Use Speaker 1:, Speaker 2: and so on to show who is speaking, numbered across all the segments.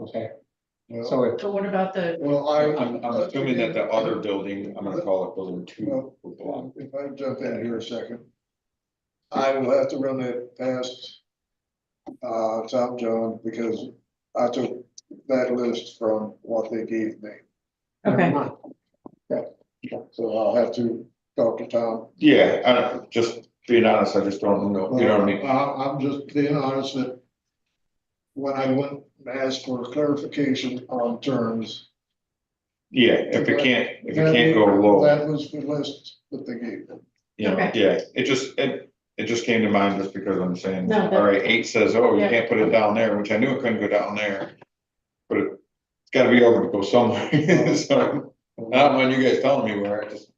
Speaker 1: Okay,
Speaker 2: Well,
Speaker 1: so if,
Speaker 3: But what about the,
Speaker 2: well, I.
Speaker 4: I'm, I'm assuming that the other building, I'm gonna call it building two, will belong.
Speaker 2: If I jump in here a second. I will have to run that past. Uh, Tom John, because I took that list from what they gave me,
Speaker 3: okay,
Speaker 2: so I'll have to talk to Tom.
Speaker 4: Yeah, I don't, just being honest, I just don't know, you know what I mean?
Speaker 2: I, am Uh, just being honest that. When I went and asked for clarification on terms.
Speaker 4: Yeah, if it can't, if it can't go low,
Speaker 2: That was the list that they gave me.
Speaker 4: you know, yeah, it just, it, it just came to mind just because I'm saying,
Speaker 3: No, that-
Speaker 4: all right, eight says, oh, you
Speaker 3: Yeah.
Speaker 4: can't put it down there, which I knew it couldn't go down there. But it's gotta be able to go somewhere, so, I don't mind you guys telling me where, I just,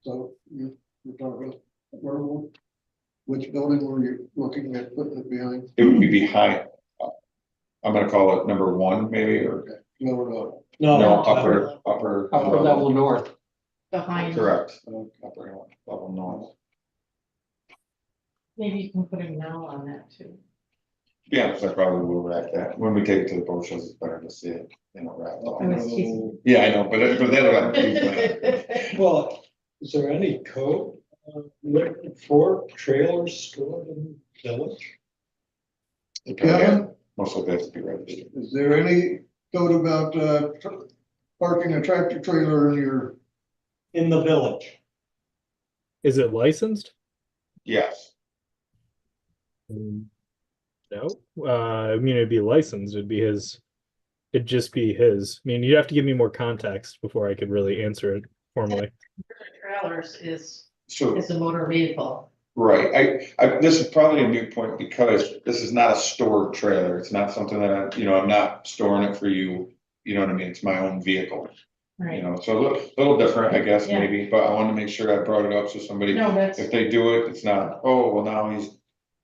Speaker 2: So you, you're talking, where, w- which building were you looking at putting it behind?
Speaker 4: it would be behind. I'm gonna call it number one, maybe, or,
Speaker 2: Lower level.
Speaker 4: no,
Speaker 1: no,
Speaker 4: upper, upper.
Speaker 1: upper level north,
Speaker 3: behind,
Speaker 4: Correct,
Speaker 2: Okay.
Speaker 4: upper level north.
Speaker 3: maybe you can put a no on that too.
Speaker 4: Yeah, so I probably will wrap that. When we take it to the boat shows, it's better to see it, you know, wrapped
Speaker 3: I
Speaker 4: up.
Speaker 3: was teasing.
Speaker 4: Yeah, I know, but that- but that'll.
Speaker 3: It
Speaker 5: Well, is there any code uh, written for trailers stored in village?
Speaker 4: Yeah,
Speaker 2: Kevin,
Speaker 4: Most of that's to be registered.
Speaker 2: is there any code about, uh, tr- parking a tractor trailer in your,
Speaker 5: In the village.
Speaker 6: Is it licensed?
Speaker 4: Yes,
Speaker 6: Mm, No, uh, I mean, it'd be licensed, it'd be his, it'd just be his. I mean, you'd have to give me more context before I could really answer it formally.
Speaker 3: Trailers is,
Speaker 4: so,
Speaker 3: is a motor vehicle.
Speaker 4: right, I, I, this is probably a new point because this is not a stored trailer. It's not something that, I you know, I'm not storing it for you. You know what I mean? It's my own vehicle, you
Speaker 3: Right.
Speaker 4: know, so a little, little different, I guess,
Speaker 3: Yeah.
Speaker 4: maybe, but I wanted to make sure I brought it up so somebody.
Speaker 3: No, that's,
Speaker 4: If they do it, it's not, oh, well, now he's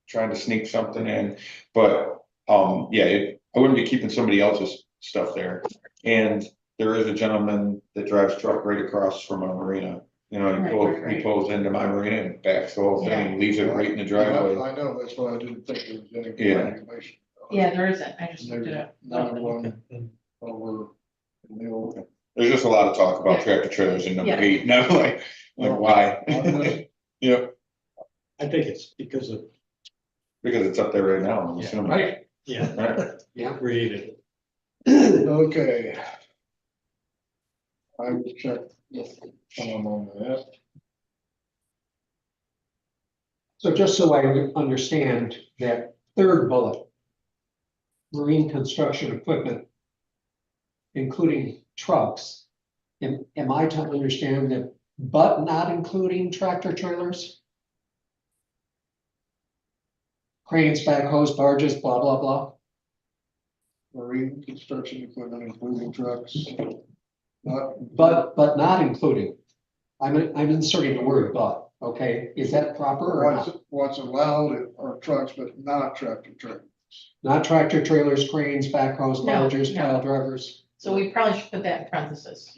Speaker 4: trying to sneak something in, but, um, yeah, it- I wouldn't be keeping somebody else's stuff there. And there is a gentleman that drives truck right across from our marina, you know, he
Speaker 3: Right,
Speaker 4: pulls,
Speaker 3: right,
Speaker 4: he
Speaker 3: right.
Speaker 4: pulls into my marina and backs the whole thing, and leaves it right in the
Speaker 2: I
Speaker 4: driveway.
Speaker 2: I know, that's why I didn't think there was any.
Speaker 4: Yeah.
Speaker 2: regulation.
Speaker 3: yeah, there isn't, I just looked it
Speaker 2: There's
Speaker 3: up.
Speaker 2: not one over in the old.
Speaker 4: There's just a lot of talk about
Speaker 3: Yeah.
Speaker 4: tractor trailers in number
Speaker 3: Yeah.
Speaker 4: eight, and I'm like, like, why?
Speaker 2: I
Speaker 4: Yep,
Speaker 5: I think it's because of,
Speaker 4: because it's up there right now, I'm
Speaker 5: Yeah.
Speaker 4: assuming.
Speaker 1: right?
Speaker 5: yeah,
Speaker 4: Right.
Speaker 5: they created it.
Speaker 2: was- Okay. I will check
Speaker 1: Yes.
Speaker 2: Tom on that.
Speaker 1: So just so I understand that third bullet. Marine construction equipment. Including trucks. Am, am I to understand that, but not including tractor trailers? Cranes, backhoes, barges, blah, blah, blah.
Speaker 2: Marine construction equipment, including trucks. Not,
Speaker 1: But, but not including. I'm, I'm inserting the word but, okay? Is that proper or
Speaker 2: what's,
Speaker 1: not?
Speaker 2: what's allowed are trucks, but not tractor trailer.
Speaker 1: Not tractor trailers, cranes, backhoes,
Speaker 3: No,
Speaker 1: barges,
Speaker 3: no.
Speaker 1: pile drivers,
Speaker 3: So we probably should put that in parentheses,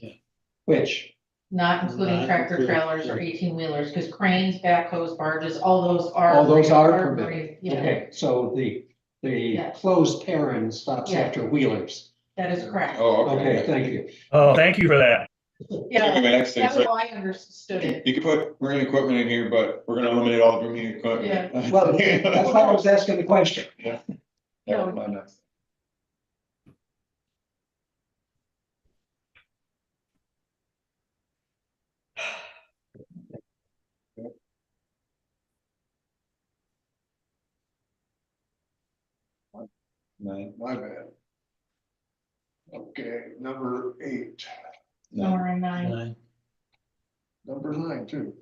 Speaker 1: which,
Speaker 3: not including
Speaker 5: Not
Speaker 3: tractor
Speaker 5: including-
Speaker 3: trailers or eighteen wheelers, because cranes, backhoes, barges, all those are.
Speaker 1: All those are permitted.
Speaker 3: permitted. Yeah,
Speaker 1: okay, so the, the
Speaker 3: Yeah.
Speaker 1: closed paren stops
Speaker 3: Yeah.
Speaker 1: after wheelers.
Speaker 3: that is correct.
Speaker 4: Oh,
Speaker 1: Okay,
Speaker 4: okay.
Speaker 1: thank you.
Speaker 7: Oh, thank you for that.
Speaker 4: Give me
Speaker 3: Yeah,
Speaker 4: my next thing,
Speaker 3: that
Speaker 4: so-
Speaker 3: was how I understood it.
Speaker 4: You could put marine equipment in here, but we're gonna eliminate all the marine equipment.
Speaker 1: Well, that's why I was asking the question.
Speaker 4: That
Speaker 3: Oh,
Speaker 4: was my next. Nine,
Speaker 2: My bad. Okay, number eight,
Speaker 4: nine,
Speaker 3: Number nine,
Speaker 2: number nine too.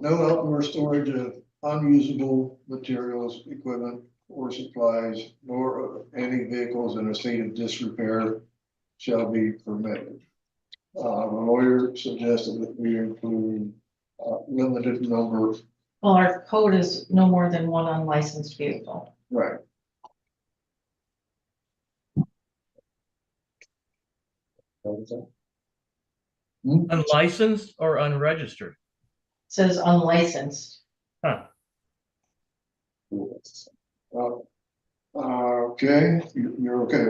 Speaker 2: No outdoor storage of unusable materials, equipment, or supplies, nor of any vehicles in a state of disrepair shall be permitted. Uh, the lawyer suggested that we include a limited number,
Speaker 3: well, our code is no more than one unlicensed vehicle.
Speaker 2: right?
Speaker 4: what was that?
Speaker 7: Unlicensed or unregistered?
Speaker 3: It Says unlicensed.
Speaker 2: Well, Uh, okay, you- you're okay